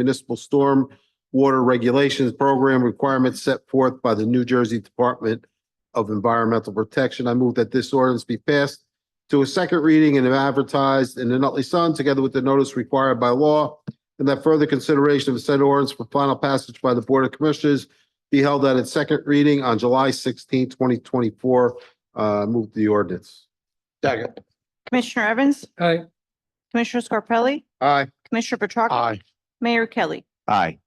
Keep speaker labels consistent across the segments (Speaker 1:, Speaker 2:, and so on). Speaker 1: municipal storm water regulations program requirements set forth by the New Jersey Department of Environmental Protection. I move that this ordinance be passed to a second reading and advertised in the Nutley Sun, together with the notice required by law, and that further consideration of said ordinance for final passage by the Board of Commissioners be held at its second reading on July 16, twenty twenty-four. Uh, move the ordinance.
Speaker 2: Second.
Speaker 3: Commissioner Evans,
Speaker 2: Aye.
Speaker 3: Commissioner Scarpelli,
Speaker 1: Aye.
Speaker 3: Commissioner Petracca. Mayor Kelly.
Speaker 4: Aye.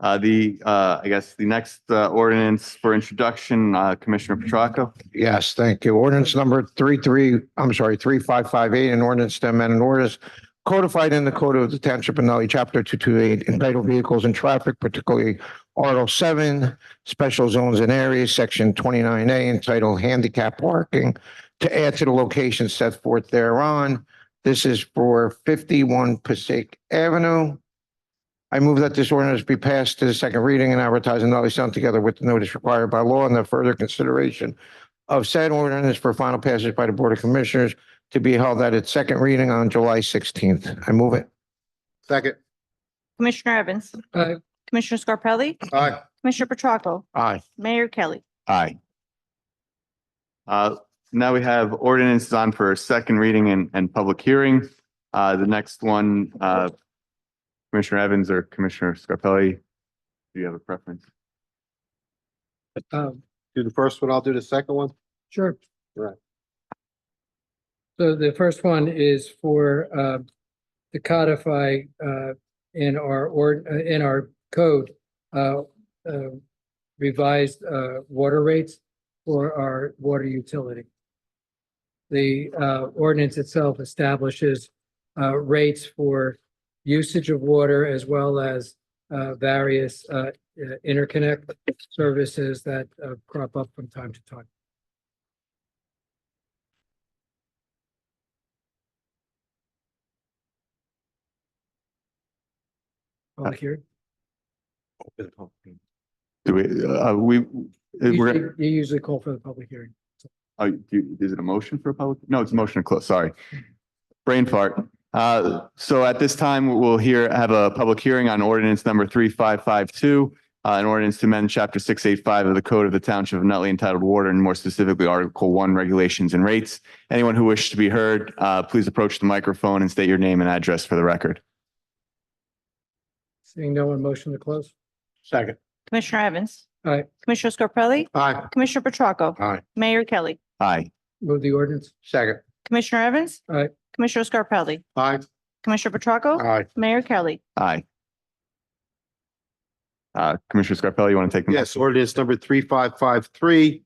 Speaker 4: Uh, the, uh, I guess the next, uh, ordinance for introduction, uh, Commissioner Petracca.
Speaker 2: Yes, thank you. Ordinance number three, three, I'm sorry, three, five, five, eight, an ordinance to amend an ordinance codified in the Code of the Township of Nutley, Chapter two, two, eight, entitled Vehicles and Traffic, particularly Article seven, Special Zones and Areas, Section twenty-nine A, entitled Handicap Parking, to add to the location set forth thereon. This is for fifty-one Passaic Avenue. I move that this ordinance be passed to the second reading and advertised in Nutley Sun together with the notice required by law and the further consideration of said ordinance for final passage by the Board of Commissioners to be held at its second reading on July sixteenth. I move it.
Speaker 1: Second.
Speaker 3: Commissioner Evans.
Speaker 2: Aye.
Speaker 3: Commissioner Scarpelli,
Speaker 1: Aye.
Speaker 3: Commissioner Petracca,
Speaker 2: Aye.
Speaker 3: Mayor Kelly.
Speaker 4: Aye. Uh, now we have ordinances on for second reading and, and public hearing. Uh, the next one, uh, Commissioner Evans or Commissioner Scarpelli, do you have a preference?
Speaker 5: Um,
Speaker 1: Do the first one, I'll do the second one.
Speaker 5: sure.
Speaker 1: Right.
Speaker 5: So the first one is for, uh, to codify, uh, in our, or, uh, in our code, uh, uh, revised, uh, water rates for our water utility. The, uh, ordinance itself establishes, uh, rates for usage of water as well as, uh, various, uh, interconnect services that, uh, crop up from time to time.
Speaker 4: Uh,
Speaker 5: Public hearing?
Speaker 4: Do we, uh, we,
Speaker 5: Usually-
Speaker 4: we're,
Speaker 5: You usually call for the public hearing.
Speaker 4: oh, do- is it a motion for a public? No, it's a motion to close, sorry. Brain fart. Uh, so at this time, we'll hear, have a public hearing on ordinance number three, five, five, two. Uh, an ordinance to amend chapter six, eight, five of the code of the township of Nutley entitled Water and more specifically Article One Regulations and Rates. Anyone who wishes to be heard, uh, please approach the microphone and state your name and address for the record.
Speaker 5: Seeing no one, motion to close?
Speaker 2: Second.
Speaker 3: Commissioner Evans.
Speaker 5: Aye.
Speaker 3: Commissioner Scarpelli,
Speaker 1: Aye.
Speaker 3: Commissioner Petracca.
Speaker 2: Aye.
Speaker 3: Mayor Kelly.
Speaker 4: Aye.
Speaker 5: Move the ordinance?
Speaker 2: Second.
Speaker 3: Commissioner Evans.
Speaker 5: Aye.
Speaker 3: Commissioner Scarpelli,
Speaker 1: Aye.
Speaker 3: Commissioner Petracca,
Speaker 2: Aye.
Speaker 3: Mayor Kelly.
Speaker 4: Aye. Uh, Commissioner Scarpelli, you want to take? the mic?
Speaker 1: Yes, ordinance number three five five three.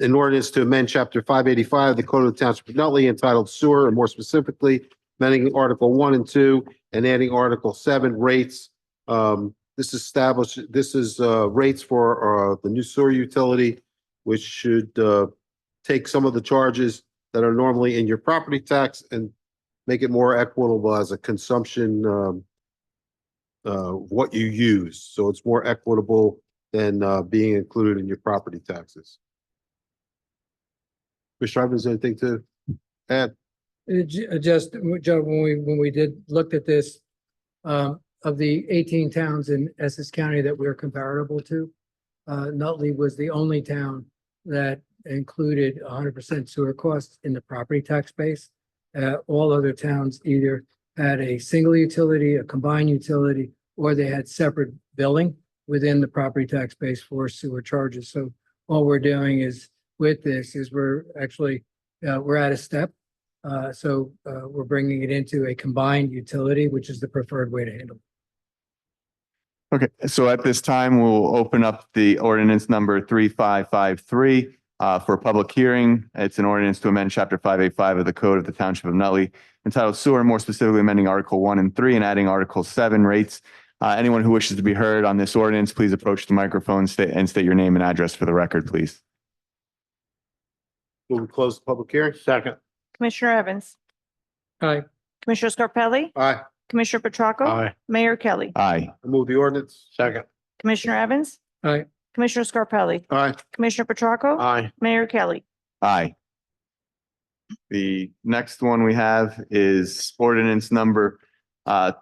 Speaker 1: An ordinance to amend chapter five eighty-five, of the Code of the Township of Nutley entitled Sewer, and more specifically, amending Article one and two and adding Article seven rates. Um, this established, this is, uh, rates for, uh, the new sewer utility, which should, uh, take some of the charges that are normally in your property tax and make it more equitable as a consumption, um, uh, what you use. So it's more equitable than uh, being included in your property taxes. Commissioner Evans, anything to add?
Speaker 5: Uh, ju- uh, Just, uh, Joe, when we, when we did, looked at this, um, of the eighteen towns in Essex County that we're comparable to, uh, Nutley was the only town that included hundred percent sewer costs in the property tax base. Uh, all other towns either had a single utility, a combined utility, or they had separate billing within the property tax base for sewer charges. So all we're doing is, with this, is we're actually, uh, we're at a step uh, so, uh, we're bringing it into a combined utility, which is the preferred way to handle. it.
Speaker 4: Okay, so at this time, we'll open up the ordinance number three, five, five, three, uh, for a public hearing. It's an ordinance to amend chapter five, eight, five of the code of the township of Nutley entitled sewer, more specifically amending article one and three and adding article seven rates. Uh, anyone who wishes to be heard on this ordinance, please approach the microphone sta- and state your name and address for the record, please.
Speaker 1: Will we close the public hearing? Second.
Speaker 3: Commissioner Evans.
Speaker 5: Aye.
Speaker 3: Commissioner Scarpelli,
Speaker 1: Aye.
Speaker 3: Commissioner Petracca, Mayor Kelly.
Speaker 4: Aye.
Speaker 1: I Move the ordinance.
Speaker 2: Second.
Speaker 3: Commissioner Evans.
Speaker 5: Aye.
Speaker 3: Commissioner Scarpelli,
Speaker 1: Aye.
Speaker 3: Commissioner Petracca,
Speaker 2: Aye.
Speaker 3: Mayor Kelly.
Speaker 4: Aye. The next one we have is ordinance number, uh,